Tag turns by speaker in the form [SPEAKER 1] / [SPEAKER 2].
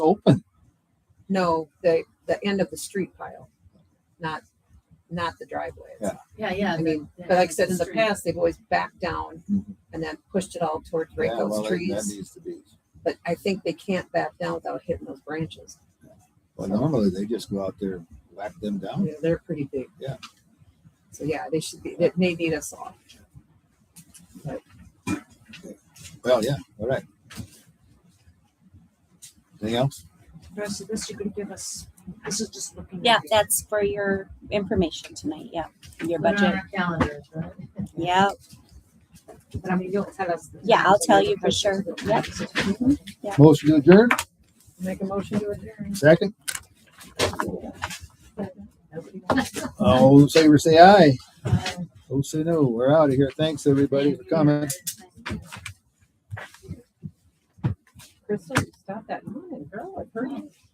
[SPEAKER 1] open.
[SPEAKER 2] No, the, the end of the street pile, not, not the driveway.
[SPEAKER 1] Yeah.
[SPEAKER 3] Yeah, yeah.
[SPEAKER 2] I
[SPEAKER 3] the-
[SPEAKER 2] mean,
[SPEAKER 3] the-
[SPEAKER 2] But like I said, in the
[SPEAKER 3] street.
[SPEAKER 2] past, they've always backed down
[SPEAKER 1] Mhm.
[SPEAKER 2] and then pushed it all towards right
[SPEAKER 1] Yeah, well,
[SPEAKER 2] those
[SPEAKER 1] that- That
[SPEAKER 2] trees.
[SPEAKER 1] needs to be.
[SPEAKER 2] But I think they can't back down without hitting those branches.
[SPEAKER 1] Well, normally they just go out there, and whack them down.
[SPEAKER 2] Yeah, They're pretty big.
[SPEAKER 1] Oh. Yeah.
[SPEAKER 2] So yeah, they should be, that may need us off.
[SPEAKER 1] Well, yeah, all right. Anything else?
[SPEAKER 4] The rest of this you can give us, this is just looking.
[SPEAKER 5] Yeah,
[SPEAKER 4] at it.
[SPEAKER 5] that's for your information tonight. Yeah, your
[SPEAKER 3] Put it on
[SPEAKER 5] budget.
[SPEAKER 3] our calendars, right?
[SPEAKER 5] Yeah,
[SPEAKER 3] But I mean, you'll tell us. the
[SPEAKER 5] yeah, I'll
[SPEAKER 3] times.
[SPEAKER 5] tell you for sure. Yep.
[SPEAKER 1] Motion to adjourn,
[SPEAKER 2] Make a motion to adjourn.
[SPEAKER 1] second.
[SPEAKER 3] Nobody wants
[SPEAKER 1] All in favor, say aye.
[SPEAKER 3] Aye.
[SPEAKER 1] Oh, say no. We're out of here. Thanks, everybody, for coming.
[SPEAKER 2] Crystal, stop that, line, girl, I heard you.